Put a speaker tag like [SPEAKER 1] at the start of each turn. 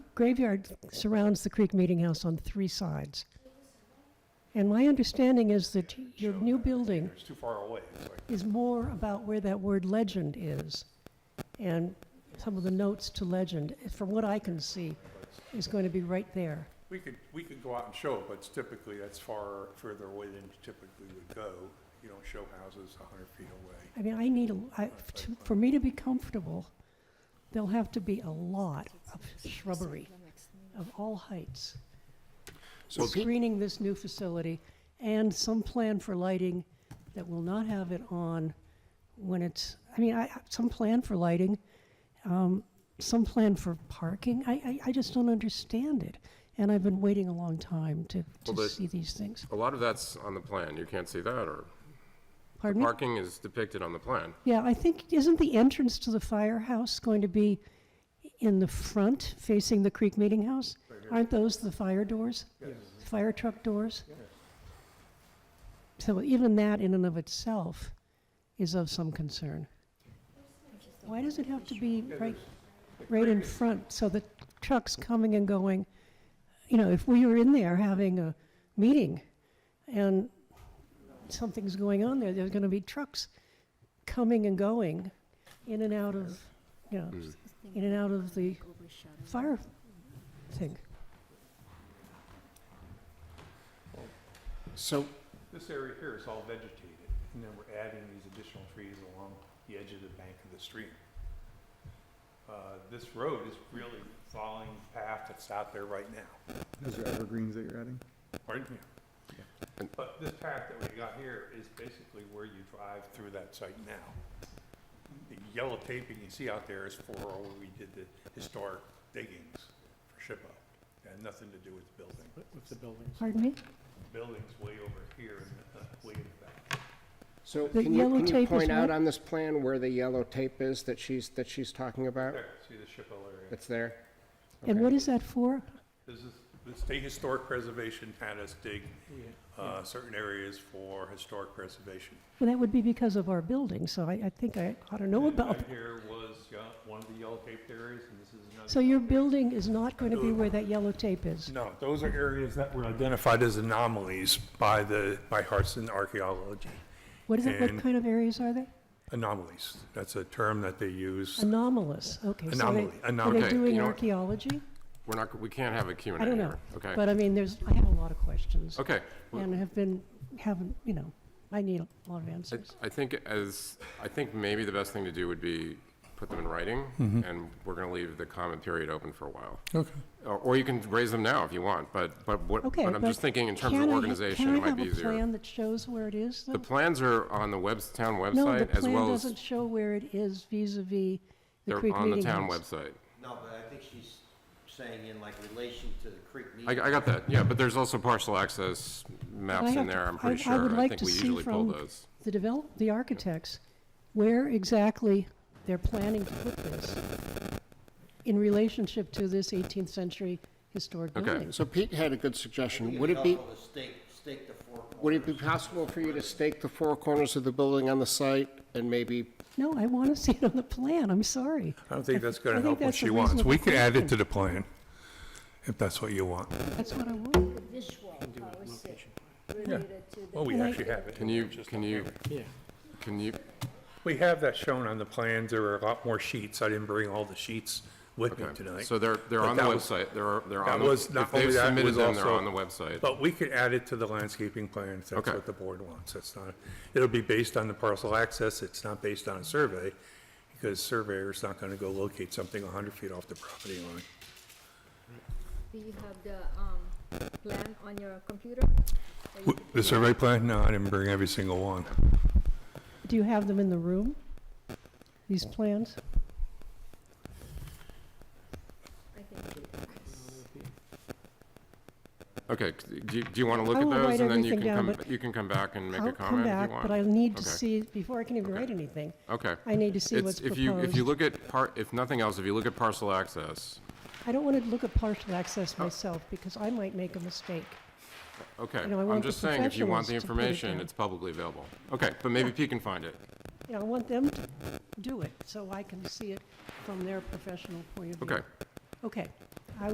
[SPEAKER 1] graveyard surrounds the Creek Meeting House on three sides. And my understanding is that your new building
[SPEAKER 2] It's too far away. It's like-
[SPEAKER 1] is more about where that word legend is. And some of the notes to legend, from what I can see, is going to be right there.
[SPEAKER 2] We could, we could go out and show it, but it's typically, that's far, further away than you typically would go. You don't show houses a hundred feet away.
[SPEAKER 1] I mean, I need, a- I- to- for me to be comfortable, there'll have to be a lot of shrubbery of all heights.
[SPEAKER 3] So pe-
[SPEAKER 1] Screening this new facility and some plan for lighting that will not have it on when it's, I mean, I, some plan for lighting, um, some plan for parking. I, I, I just don't understand it. And I've been waiting a long time to,
[SPEAKER 3] Well,
[SPEAKER 1] to
[SPEAKER 3] but-
[SPEAKER 1] see these things.
[SPEAKER 3] A lot of that's on the plan. You can't see that, or
[SPEAKER 1] Pardon me?
[SPEAKER 3] parking is depicted on the plan.
[SPEAKER 1] Yeah, I think, isn't the entrance to the firehouse going to be in the front, facing the Creek Meeting House? Aren't those the fire doors? Fire truck doors? So even that in and of itself is of some concern. Why does it have to be right, right in front, so the trucks coming and going? You know, if we were in there having a meeting and something's going on there, there's gonna be trucks coming and going in and out of, you know, in and out of the fire thing.
[SPEAKER 3] So,
[SPEAKER 2] This area here is all vegetated, and then we're adding these additional trees along the edge of the bank of the stream. Uh, This road is really following the path that's out there right now.
[SPEAKER 4] Those are evergreens that you're adding?
[SPEAKER 2] Pardon me. But this path that we got here is basically where you drive through that site now. The yellow taping you see out there is for where we did the historic diggings for SHPO. It Had nothing to do with the building.
[SPEAKER 5] with the buildings.
[SPEAKER 1] Pardon me?
[SPEAKER 2] Building's way over here and uh, way in the back.
[SPEAKER 3] so
[SPEAKER 1] The
[SPEAKER 3] can you,
[SPEAKER 1] yellow
[SPEAKER 3] can you
[SPEAKER 1] tape is
[SPEAKER 3] point out
[SPEAKER 1] what?
[SPEAKER 3] on this plan where the yellow tape is that she's, that she's talking about?
[SPEAKER 2] There, see the SHPO area?
[SPEAKER 3] That's there?
[SPEAKER 1] And what is that for?
[SPEAKER 2] This is, the state historic preservation had us dig uh, certain areas for historic preservation.
[SPEAKER 1] Well, that would be because of our building, so I, I think I ought to know
[SPEAKER 2] And
[SPEAKER 1] about.
[SPEAKER 2] Right here was yeah, one of the yellow taped areas, and this is another.
[SPEAKER 1] So your building is not going to be where that yellow tape is?
[SPEAKER 2] No, those are areas that were identified as anomalies by the, by Hartson Archaeology.
[SPEAKER 1] What is it, what
[SPEAKER 2] And-
[SPEAKER 1] kind of areas are they?
[SPEAKER 2] Anomalies, that's a term that they use.
[SPEAKER 1] Anomalous, okay. so they-
[SPEAKER 2] Anomaly,
[SPEAKER 1] Are
[SPEAKER 2] anomaly.
[SPEAKER 1] they
[SPEAKER 3] Okay,
[SPEAKER 1] doing
[SPEAKER 3] you know-
[SPEAKER 1] archaeology?
[SPEAKER 3] We're not, we can't have a Q and
[SPEAKER 1] I
[SPEAKER 3] A
[SPEAKER 1] don't know.
[SPEAKER 3] here. Okay.
[SPEAKER 1] But uh, I mean, there's, I have a lot of questions.
[SPEAKER 3] Okay. Well,
[SPEAKER 1] And have been, haven't, you know, I need a lot of
[SPEAKER 3] I-
[SPEAKER 1] answers.
[SPEAKER 3] I think as, I think maybe the best thing to do would be put them in writing, and we're gonna leave the comment period open for a while.
[SPEAKER 2] Okay.
[SPEAKER 3] Or, or you can raise them now if you want, but, but what,
[SPEAKER 1] Okay,
[SPEAKER 3] but I'm
[SPEAKER 1] but
[SPEAKER 3] just thinking in terms of
[SPEAKER 1] Can I ha-
[SPEAKER 3] organization, it might be
[SPEAKER 1] Can I have a
[SPEAKER 3] easier.
[SPEAKER 1] plan that shows where it is,
[SPEAKER 3] The
[SPEAKER 1] though?
[SPEAKER 3] plans are on the webs, town
[SPEAKER 1] No, the
[SPEAKER 3] website, as
[SPEAKER 1] plan
[SPEAKER 3] well as,
[SPEAKER 1] doesn't show where it is vis-à-vis the
[SPEAKER 3] they're
[SPEAKER 1] Creek
[SPEAKER 3] on the
[SPEAKER 1] Meeting
[SPEAKER 3] town
[SPEAKER 1] House.
[SPEAKER 3] website.
[SPEAKER 6] No, but I think she's saying in like relation to the Creek meeting.
[SPEAKER 3] I, I got that, yeah, but there's also partial access
[SPEAKER 1] I
[SPEAKER 3] maps in
[SPEAKER 1] have to-
[SPEAKER 3] there, I'm
[SPEAKER 1] I-
[SPEAKER 3] pretty
[SPEAKER 1] I would
[SPEAKER 3] sure. I
[SPEAKER 1] like
[SPEAKER 3] think
[SPEAKER 1] to
[SPEAKER 3] we
[SPEAKER 1] see
[SPEAKER 3] usually pull
[SPEAKER 1] from-
[SPEAKER 3] those.
[SPEAKER 1] The develop, the architects, where exactly they're planning to put this in relationship to this 18th century historic
[SPEAKER 3] Okay,
[SPEAKER 1] building.
[SPEAKER 7] So Pete had a good suggestion.
[SPEAKER 6] It'd
[SPEAKER 7] Would it be,
[SPEAKER 6] helpful to stake, stake the four corners.
[SPEAKER 7] would it be possible for you to stake the four corners of the building on the site and maybe,
[SPEAKER 1] No, I want to see it on the plan, I'm sorry.
[SPEAKER 2] I don't think that's going
[SPEAKER 1] I
[SPEAKER 2] to
[SPEAKER 1] think
[SPEAKER 2] help what
[SPEAKER 1] that's a
[SPEAKER 2] she wants. We
[SPEAKER 1] reasonable
[SPEAKER 2] could add it
[SPEAKER 1] question.
[SPEAKER 2] to the plan, if that's what you want.
[SPEAKER 1] That's what I want.
[SPEAKER 8] visual policy related to the
[SPEAKER 2] Well, we
[SPEAKER 1] Can I-
[SPEAKER 2] actually have it.
[SPEAKER 3] Can you, can you, can you,
[SPEAKER 2] We have that shown on the plans. There are a lot more sheets. I didn't bring all the sheets with me
[SPEAKER 3] okay,
[SPEAKER 2] tonight.
[SPEAKER 3] so they're, they're
[SPEAKER 2] But
[SPEAKER 3] on the
[SPEAKER 2] that was-
[SPEAKER 3] website, they're, they're
[SPEAKER 2] That
[SPEAKER 3] on, the-
[SPEAKER 2] was
[SPEAKER 3] if
[SPEAKER 2] not only
[SPEAKER 3] they've
[SPEAKER 2] that, it
[SPEAKER 3] submitted
[SPEAKER 2] was
[SPEAKER 3] them, they're
[SPEAKER 2] also- Oh.
[SPEAKER 3] on the website.
[SPEAKER 2] But we could add it to the landscaping plan if that's
[SPEAKER 3] Okay.
[SPEAKER 2] what the board wants. That's not, it'll be based on the parcel access. It's not based on a survey because surveyor's not going to go locate something 100 feet off the property line.
[SPEAKER 8] Do you have the um, plan on your computer? Or you could
[SPEAKER 2] The survey plan? No, I didn't bring every single one.
[SPEAKER 1] Do you have them in the room, these plans?
[SPEAKER 8] I can do that.
[SPEAKER 3] Okay, c- do you, do you want to look
[SPEAKER 1] I
[SPEAKER 3] at
[SPEAKER 1] will write
[SPEAKER 3] those, and then you
[SPEAKER 1] everything
[SPEAKER 3] can
[SPEAKER 1] down,
[SPEAKER 3] come,
[SPEAKER 1] but
[SPEAKER 3] you can come back and make
[SPEAKER 1] I'll
[SPEAKER 3] a
[SPEAKER 1] come
[SPEAKER 3] comment if you
[SPEAKER 1] back,
[SPEAKER 3] want?
[SPEAKER 1] but I need to
[SPEAKER 3] Okay.
[SPEAKER 1] see, before I can even
[SPEAKER 3] Okay.
[SPEAKER 1] write anything,
[SPEAKER 3] Okay.
[SPEAKER 1] I need to see
[SPEAKER 3] It's-
[SPEAKER 1] what's
[SPEAKER 3] If you, if you
[SPEAKER 1] proposed.
[SPEAKER 3] look at part, if nothing else, if you look at parcel access,
[SPEAKER 1] I don't want to look at partial access
[SPEAKER 3] Oh.
[SPEAKER 1] myself, because I might make a mistake.
[SPEAKER 3] okay,
[SPEAKER 1] You know, I
[SPEAKER 3] I'm
[SPEAKER 1] want
[SPEAKER 3] just
[SPEAKER 1] the
[SPEAKER 3] saying, if you want
[SPEAKER 1] professionals to put
[SPEAKER 3] the
[SPEAKER 1] it
[SPEAKER 3] information,
[SPEAKER 1] down.
[SPEAKER 3] it's publicly available. Okay, but maybe Pete can find it.
[SPEAKER 1] You know, I want them to do it, so I can see it from their professional point of view.
[SPEAKER 3] Okay,
[SPEAKER 1] Okay,